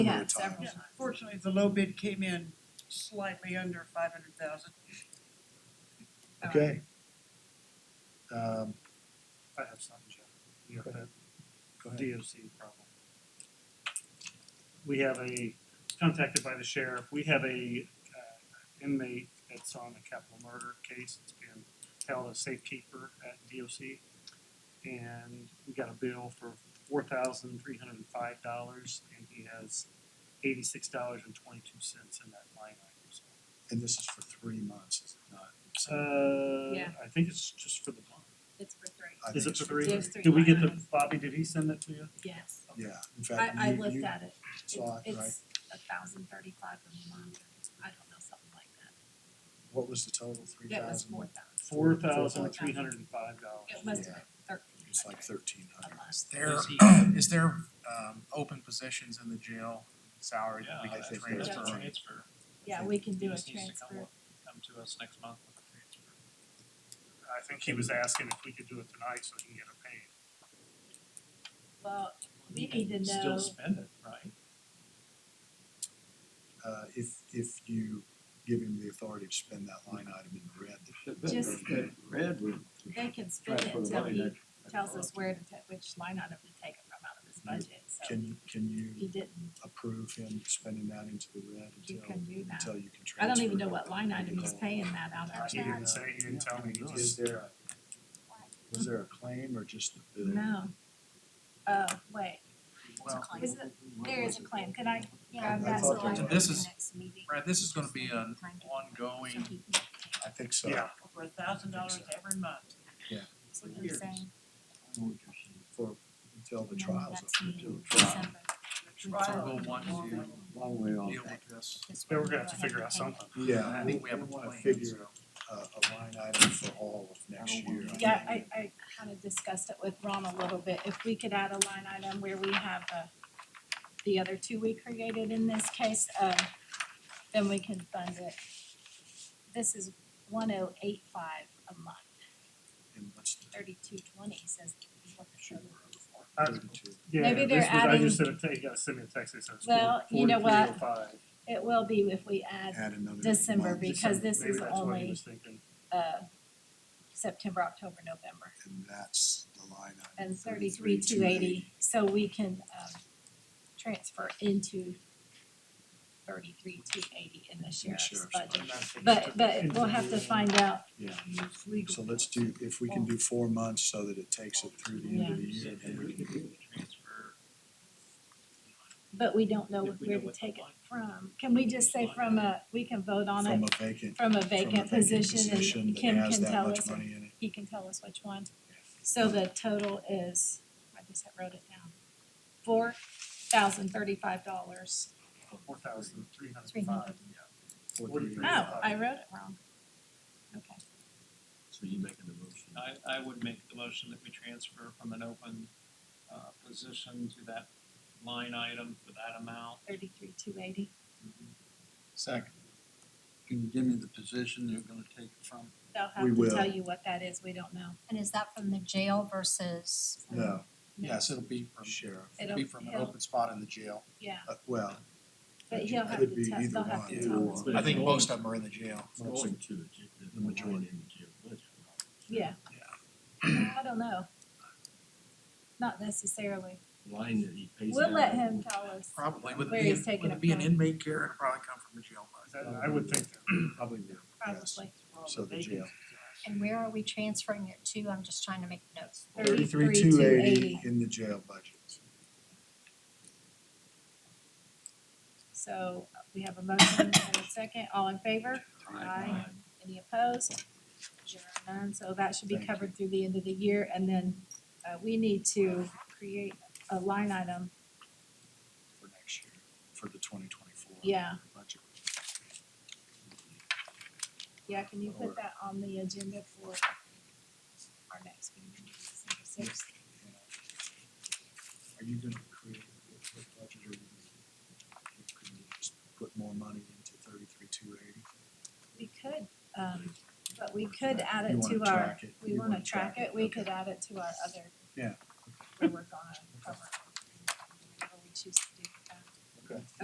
We Another have time. several. Yeah, unfortunately, the low bid came in slightly under five hundred thousand. Okay. Um, I have something, Jeff. go ahead, go ahead. DOC problem. We have a, contacted by the sheriff, we have a uh, inmate that's on a capital murder case, it's been held as safekeeper at DOC. And we got a bill for four thousand three hundred and five dollars, and he has eighty-six dollars and twenty-two cents in that line item, so. And this is for three months, is it not? Yeah. Uh, I think it's just for the month. It's for three. I think Is it it's for three? Yes, three Did we get the, lines. Bobby, did he send that to you? Yes, Yeah, in fact, I, I you, looked you at it. saw It's, it, right? it's a thousand thirty-five a month, I don't know, something like that. What was the total, three It was thousand? more thousand. Four thousand three hundred and five It dollars. must have Yeah. been thirteen. It's like thirteen hundred. Is there, Is he- is there, um, open positions in the jail salary that we Yeah, I could think transfer? that's a right. transfer. Yeah, we can He do a just needs to come transfer. up- Come to us next month with a transfer. I think he was asking if we could do it tonight so he can get it paid. Well, we You can need to know- Still spend it, right? Uh, if, if you give him the authority to spend that line item in the red, That- that- Just- that Red would they can spend it transfer the until money he that. tells us where to ta- which line item to take it from out of his budget, so can, can he you didn't, approve him spending that into the red you until, can do that. until you can transfer? I don't even know it? what line item he's paying that out He of. didn't say, he didn't tell me, he Is just, there, a- was there a claim or just the bill? No. Oh, wait, Well, is it, there is a claim, could I, yeah, I that's thought what there I. was. This is- Next meeting. Brad, this is gonna be an ongoing, I think so. yeah, Over a thousand dollars every month. That's what you're saying. For, until And the then trial's next over. meeting, Until trial. December. we'll want to Long way off. deal with this. That's but when we're gonna we'll have to figure out pay it. something. Yeah, I I think think we have a wanna plan. figure a, a line item for all of next I don't year. want to- Yeah, I, I kind of discussed it with Ron a little bit, if we could add a line item where we have uh the other two we created in this case, um, then we can fund it. This is one oh eight five a month, And what's the thirty-two twenty says what the show is for. I- thirty-two? Yeah, Maybe they're this was, I just said, adding- "Hey, you gotta send me a text, it says Well, you know what? 4305. It will be if we add, Add another December month, because- this Maybe is that's what he only- was thinking. uh, September, October, November, And that's the line item. and thirty-three two 33,280. eighty, so we can, um, transfer into thirty-three two eighty in the sheriff's sheriff's budget. And that's what he But took but into we'll have to the- find out. Yeah, so let's do, if we can do four months so that it takes it through the end of the year, then we can do it. Transfer. But we don't know If we where know to what the take it line- from. Can we just say from a, we can vote on From it a vacant, from a from a vacant vacant position position and that Kim has can that tell much us, money in it. he can tell us which one. So the total is, I just wrote it down, four thousand thirty-five dollars. Four thousand three hundred Three and five, hundred. yeah. Oh, I wrote it wrong. Okay, So you making the motion? I, I would make the motion that we transfer from an open, uh, position to that line item for that amount. thirty-three two eighty. Second. Can you give me the position they're gonna take it from? They'll We have to will. tell you what that is. We don't know. And is that from the jail versus? No, Yes, it'll be from, sheriff, it'll be from an It'll- open spot in the jail. Yeah, uh, well, but It he'll have could to be tell, either they'll have one. to Either tell us. one. I think most of them are in the jail. Going to the, the majority. Yeah. I don't know. Not necessarily. Line that he pays We'll let him tell us. Probably, would Where it be, he's taking would it it be an from. inmate care, it'd probably come from the jail. budget. That- I would think that. probably do. Yes. Probably. So the jail. And where are we transferring it to? I'm just trying to make notes. Thirty-three two eighty in the jail budget. So uh, we have a motion and a second. All in favor? Aye. Any opposed? Zero none. So that should be Thank you. covered through the end of the year. And then uh, we need to create a line item. for next year, for the twenty twenty-four. Yeah. Budget. Yeah, can you put that on the agenda for our next meeting, December sixth? uh, Are you gonna create a good budget or you can you just put more money into thirty-three two eighty? We could, um, but we could add it to our, we wanna track it, we could add it to our other. Yeah. We work on it, cover, whatever we choose to do.